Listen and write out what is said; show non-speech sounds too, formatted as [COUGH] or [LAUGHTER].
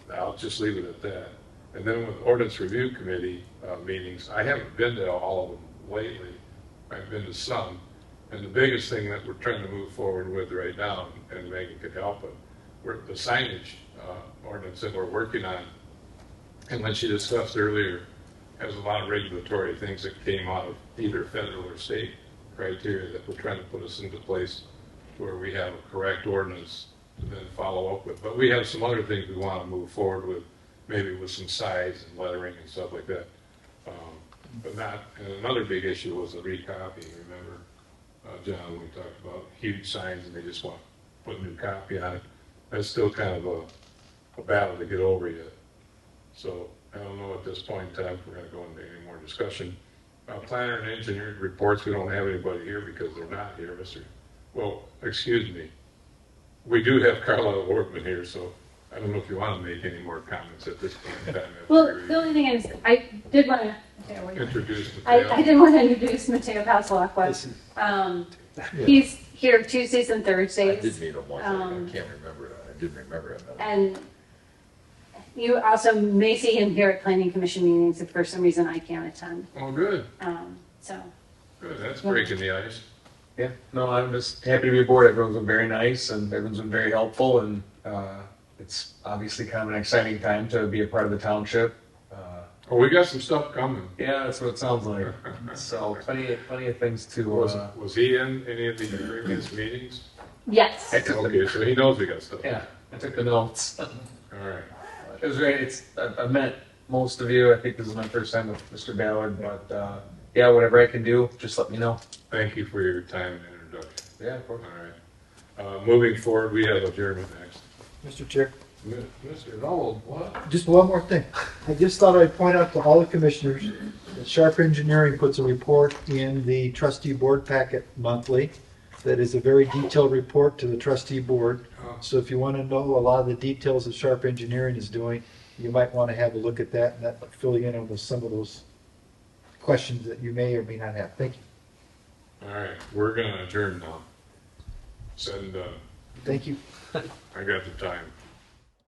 I'll just leave it at that. And then with ordinance review committee uh, meetings, I haven't been to all of them lately. I've been to some. And the biggest thing that we're trying to move forward with right now, and Megan could help, it, we're, the signage uh, ordinance that we're working on, and when she discussed earlier, has a lot of regulatory things that came out of either federal or state criteria that we're trying to put us into place where we have a correct ordinance to then follow up with. But we have some other things we want to move forward with, maybe with some size and lettering and stuff like that. Um, But not, and another big issue was the recopying, remember, uh, John, we talked about huge signs and they just want to put new copy on it. That's still kind of a, a battle to get over yet. So I don't know at this point in time if we're gonna go into any more discussion. Uh, planner and engineer reports, we don't have anybody here because they're not here, Mr. Well, excuse me. We do have [LAUGHS] Carlisle Workman here, so I don't know if you wanna make any more comments at this point in time. after Well, you the only thing is, I did want to, there we go. Introduce the. I, I did want to introduce Mateo Pasalakwa. Listen. Um, he's here Tuesdays and I did Thursdays, meet him once, I Um, can't remember, it. I didn't remember him. and you also may see him here at planning commission meetings if for some reason I can't attend. Oh, good, Um, so, good, that's breaking the ice. Yeah, no, I'm just happy to be aboard. Everyone's been very nice and everyone's been very helpful and uh, it's obviously kind of an exciting time to be a part of the township. Uh, Oh, we got some stuff coming. yeah, that's what it sounds like. So plenty, plenty of things to. Was, Uh, was he in any of the previous meetings? yes. I took Okay, the, so he knows we got stuff. yeah, I took the notes. All right. It was great. It's I, I met most of you. I think this is my first time with Mr. Ballard, but uh, yeah, whatever I can do, just let me know. Thank you for your time and introduction. Yeah, of All course. right. Uh, moving forward, we have adjournment next. Mr. Chair, Mi- Mr. Noel, what? just one more thing. I just thought I'd point out to all the commissioners that Sharp Engineering puts a report in the trustee board packet monthly that is a very detailed report to the trustee board. Oh. So if you want to know a lot of the details that Sharp Engineering is doing, you might want to have a look at that and that fill you in on those- some of those questions that you may or may not have. Thank you. All right, we're gonna adjourn now. Send, uh, Thank you. I got the time.